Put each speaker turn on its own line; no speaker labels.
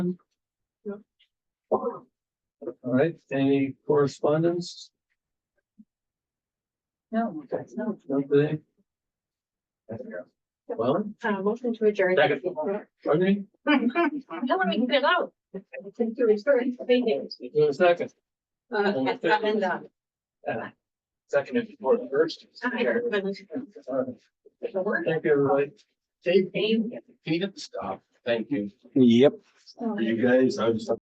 All right, any correspondence?
No.
No, today? Well,
Uh, motion to adjourn.
Second. pardon me,
No, we can get out. Since you're restoring the meetings.
do a second,
Uh, at seven, uh,
second if you want first.
I don't-
Thank you, everybody. Dave, Peter, stop, thank you.
Yep.
For you guys, I was.